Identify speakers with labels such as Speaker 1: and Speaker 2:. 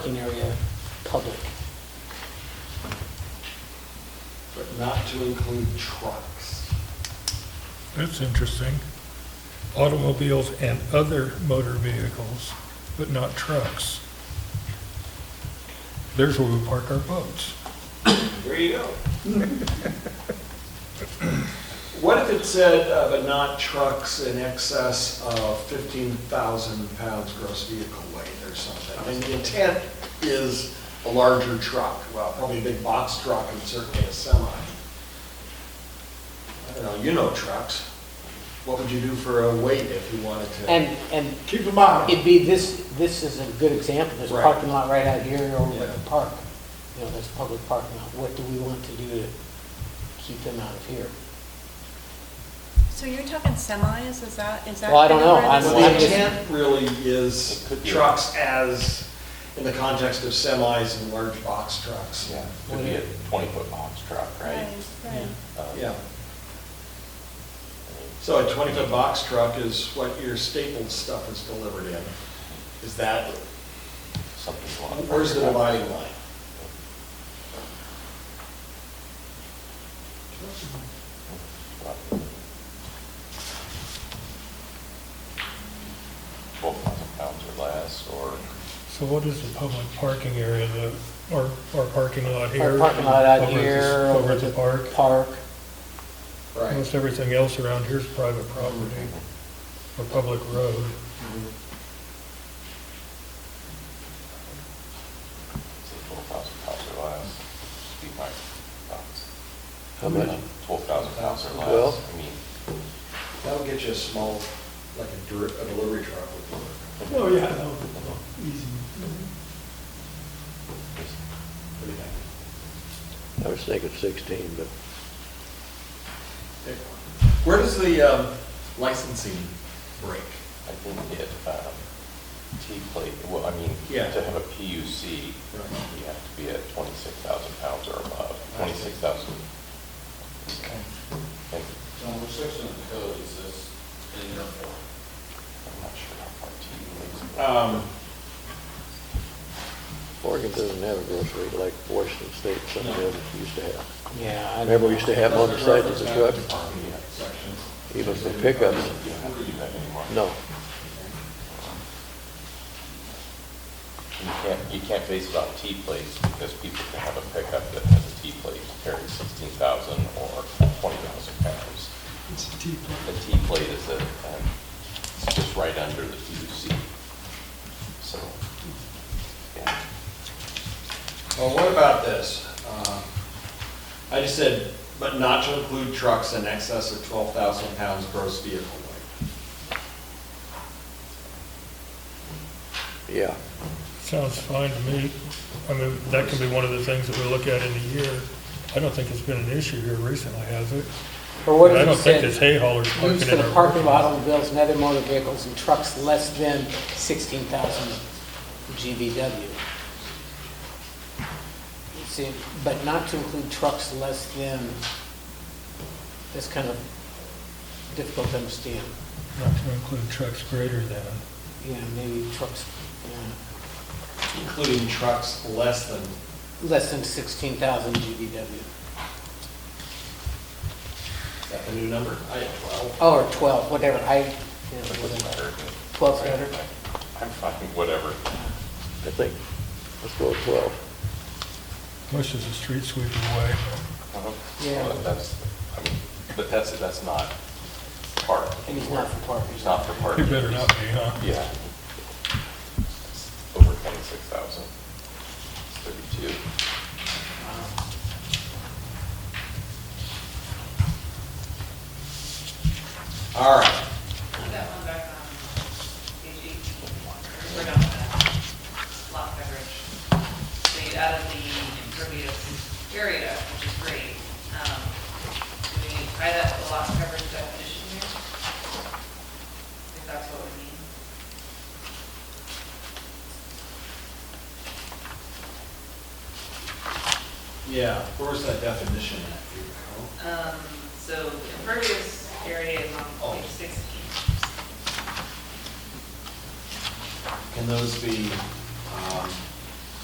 Speaker 1: parking area public.
Speaker 2: but not to include trucks.
Speaker 3: That's interesting. Automobiles and other motor vehicles, but not trucks. There's where we park our boats.
Speaker 2: There you go. What if it said, uh, but not trucks in excess of 15,000 pounds gross vehicle weight or something? I mean, the intent is a larger truck, well, probably a big box truck and certainly a semi. I don't know, you know trucks. What would you do for a weight if you wanted to?
Speaker 1: And, and
Speaker 2: Keep in mind.
Speaker 1: it'd be this, this is a good example, this
Speaker 2: Right.
Speaker 1: parking lot right out here over at
Speaker 2: Yeah.
Speaker 1: the park. You know, that's public parking lot. What do we want to do to keep them out of here?
Speaker 4: So you're talking semis, is that, is that?
Speaker 1: Well, I don't know. I'm-
Speaker 2: Well, the
Speaker 1: I'm-
Speaker 2: intent really is trucks as, in the context of semis and large box trucks.
Speaker 5: Yeah, could be a twenty-foot box truck, right?
Speaker 4: Right,
Speaker 5: Uh,
Speaker 2: Yeah. So a 20-foot box truck is what your stapled stuff is delivered in. Is that,
Speaker 5: Something along.
Speaker 2: where's the dividing line?
Speaker 5: Twelve thousand pounds or less, or
Speaker 3: So what is the public parking area, the, our, our parking lot here?
Speaker 1: Our parking lot out
Speaker 3: over at the-
Speaker 1: here,
Speaker 3: Over at the park.
Speaker 1: Park,
Speaker 3: Almost everything else around here is private property or public road.
Speaker 5: say twelve thousand pounds or less, just be my thoughts.
Speaker 6: How much?
Speaker 5: Twelve thousand pounds or
Speaker 6: Well-
Speaker 5: less, I mean,
Speaker 2: That'll get you a small, like a dir- a delivery truck would work.
Speaker 7: Oh, yeah, no, easy.
Speaker 2: What do you think?
Speaker 6: I was thinking 16, but
Speaker 2: Where does the um, licensing break?
Speaker 5: I think it, um, T plate, well, I mean,
Speaker 2: Yeah.
Speaker 5: to have a PUC,
Speaker 2: Right.
Speaker 5: you have to be at twenty-six thousand pounds or above, twenty-six thousand. And
Speaker 8: John, what section of the code is this in there for?
Speaker 5: I'm not sure how far T relates.
Speaker 2: Um,
Speaker 6: Oregon doesn't have a grocery like Washington State, some of them used to have.
Speaker 1: yeah. I don't
Speaker 6: Remember, we
Speaker 1: know.
Speaker 6: used to have them on the sides of the truck,
Speaker 5: Yeah,
Speaker 8: Section.
Speaker 6: even for pickups?
Speaker 5: you don't have to do that anymore.
Speaker 6: No.
Speaker 5: You can't, you can't base it on T plates because people can have a pickup that has a T plate carrying sixteen thousand or twenty thousand pounds.
Speaker 7: It's a T plate.
Speaker 5: The T plate is a, um, it's just right under the PUC. So, yeah.
Speaker 2: Well, what about this? Um, I just said, but not to include trucks in excess of 12,000 pounds gross vehicle weight.
Speaker 6: Yeah.
Speaker 3: Sounds fine to me. I mean, that can be one of the things that we look at in a year. I don't think it's been an issue here recently, has it?
Speaker 1: Or what
Speaker 3: I
Speaker 1: if
Speaker 3: don't
Speaker 1: it
Speaker 3: think it's
Speaker 1: said,
Speaker 3: hay haulers parking
Speaker 1: used for
Speaker 3: in
Speaker 1: the
Speaker 3: our
Speaker 1: parking
Speaker 3: parking
Speaker 1: of automobiles and other motor vehicles and trucks less than 16,000 GVW. See, but not to include trucks less than, that's kind of difficult to understand.
Speaker 3: Not to include trucks greater than.
Speaker 1: Yeah, maybe trucks, yeah,
Speaker 2: Including trucks less than,
Speaker 1: less than 16,000 GVW,
Speaker 2: is that the new number? I, well,
Speaker 1: Oh, or 12, whatever, I, you know,
Speaker 5: It doesn't
Speaker 1: whatever.
Speaker 5: matter.
Speaker 1: 12 better.
Speaker 5: I'm fine, whatever.
Speaker 6: I think, let's go with 12.
Speaker 3: Most of the street sweeping away.
Speaker 5: Uh-huh.
Speaker 1: Yeah.
Speaker 5: Well, That's, I mean, but that's, that's not part.
Speaker 1: And it's not for parking.
Speaker 5: It's not for part.
Speaker 3: It better not be, huh?
Speaker 5: Yeah. It's Over twenty-six thousand. Thirty-two.
Speaker 1: Wow.
Speaker 2: all right.
Speaker 9: That one back on page 18, we're done with that. lot coverage. So you added the impervious area, which is great. Um, Do we tie that to the lot coverage definition here? If that's what we mean.
Speaker 2: Yeah, where's that definition at?
Speaker 9: Um, So the impervious area is on page 16.
Speaker 2: Can those be um,